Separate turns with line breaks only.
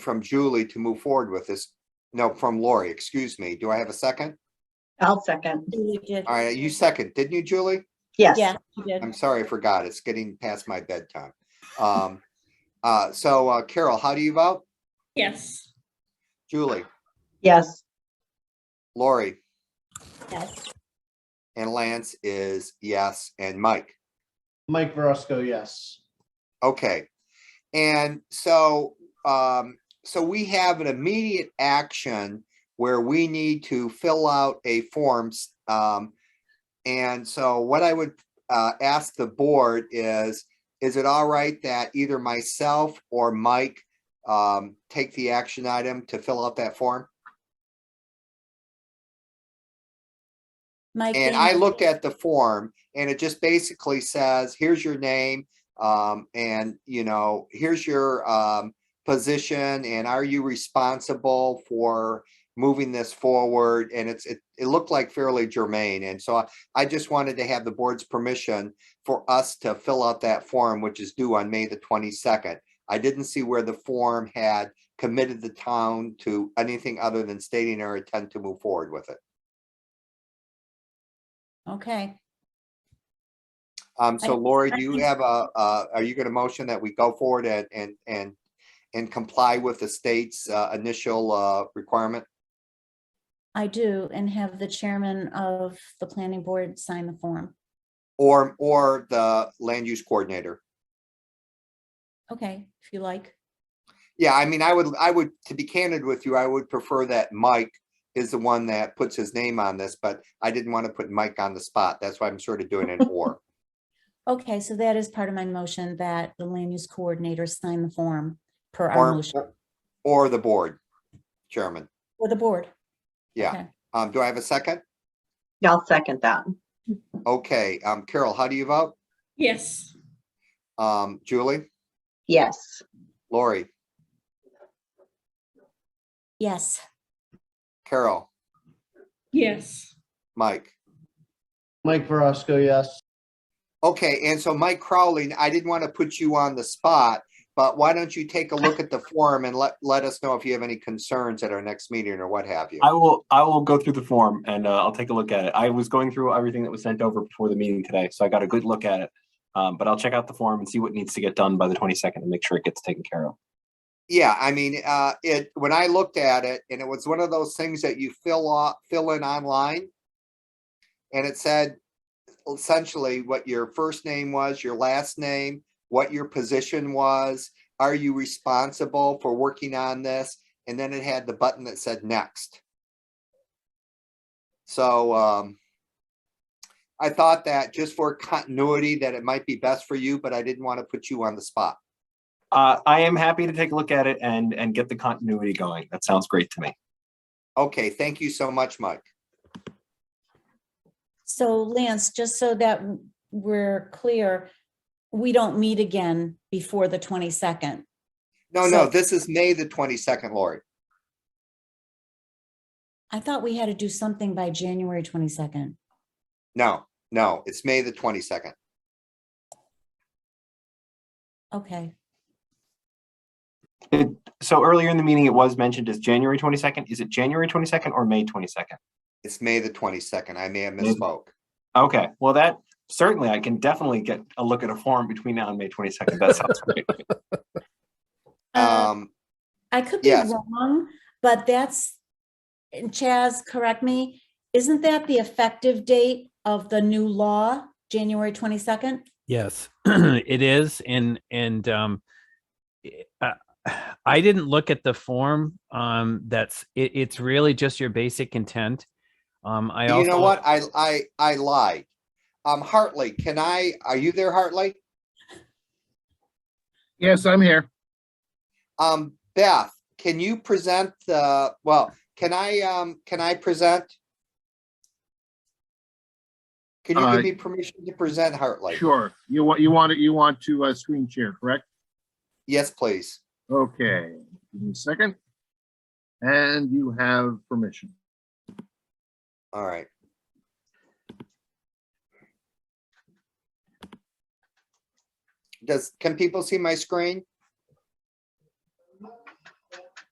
from Julie to move forward with this. No, from Lori, excuse me. Do I have a second?
I'll second.
You did.
All right, you Um, second, didn't you, Julie?
Yes,
Yeah, you did.
I'm sorry, I forgot. It's getting past my bedtime. Um, uh, so uh, Carol, how do you vote?
Yes,
Julie,
yes,
Lori,
Yes.
and Lance is yes, and Mike.
Mike Verosco, yes.
Okay. And so, um, so we have an immediate action where we need to fill out a forms. Um, and so what I would, uh, ask the board is, is it all right that either myself or Mike, um, take the action item to fill out that form?
Mike.
And I looked at the form and it just basically says, here's your name. Um, and you know, here's your, um, position and are you responsible for moving this forward? And it's, it, it looked like fairly germane. And so I, I just wanted to have the board's permission for us to fill out that form, which is due on May the twenty-second. I didn't see where the form had committed the town to anything other than stating our intent to move forward with it.
Okay,
Um, so
I-
Lori,
I
do you
think-
have a, uh, are you gonna motion that we go forward and, and, and, and comply with the state's, uh, initial, uh, requirement?
I do, and have the chairman of the planning board sign the form.
Or, or the land use coordinator?
Okay, if you like.
Yeah, I mean, I would, I would, to be candid with you, I would prefer that Mike is the one that puts his name on this, but I didn't want to put Mike on the spot. That's why I'm sort of doing an or.
Okay, so that is part of my motion that the land use coordinator sign the form per our
Or,
motion
or the board chairman.
for the board.
Yeah.
Okay.
Um, do I have a second?
I'll second that.
Okay, um, Carol, how do you vote?
yes,
Um, Julie,
Yes,
Lori,
Yes,
Carol?
yes,
Mike.
Mike Verosco, yes.
Okay, and so Mike Crowley, I didn't want to put you on the spot, but why don't you take a look at the form and let, let us know if you have any concerns at our next meeting or what have you?
I will, I will go through the form and uh, I'll take a look at it. I was going through everything that was sent over before the meeting today, so I got a good look at it. Um, but I'll check out the form and see what needs to get done by the twenty-second and make sure it gets taken care of.
Yeah, I mean, uh, it, when I looked at it, and it was one of those things that you fill out, fill in online. And it said essentially what your first name was, your last name, what your position was. Are you responsible for working on this? And then it had the button that said next. So, um, I thought that just for continuity, that it might be best for you, but I didn't want to put you on the spot.
Uh, I am happy to take a look at it and, and get the continuity going. That sounds great to me.
Okay, thank you so much, Mike.
so Lance, just so that w- we're clear, we don't meet again before the twenty-second.
No, no,
So-
this is May the twenty-second, Lori.
I thought we had to do something by January twenty-second.
No, no, it's May the twenty-second.
Okay,
So earlier in the meeting, it was mentioned as January twenty-second. Is it January twenty-second or May twenty-second?
It's May the twenty-second. I may have
Mm-hmm.
May the-
misspoke.
Okay, well, that certainly, I can definitely get a look at a form between now and May twenty-second. That sounds great.
Uh,
Um,
I could be
yes.
wrong, but that's, and Chaz, correct me, isn't that the effective date of the new law, January twenty-second?
Yes, it is. And, and, um, i- uh, I didn't look at the form. Um, that's, it, it's really just your basic intent. Um, I also.
you know what? I, I, I lied. Um, Hartley, can I, are you there, Hartley?
Yes, I'm here.
Um, Beth, can you present the, well, can I, um, can I present? Can you
Uh,
give me permission to present, Hartley?
Sure. You want, you want it, you want to uh, screen share, correct?
Yes, please.
Okay, give me a second. And you have permission.
All right. Does, can people see my screen?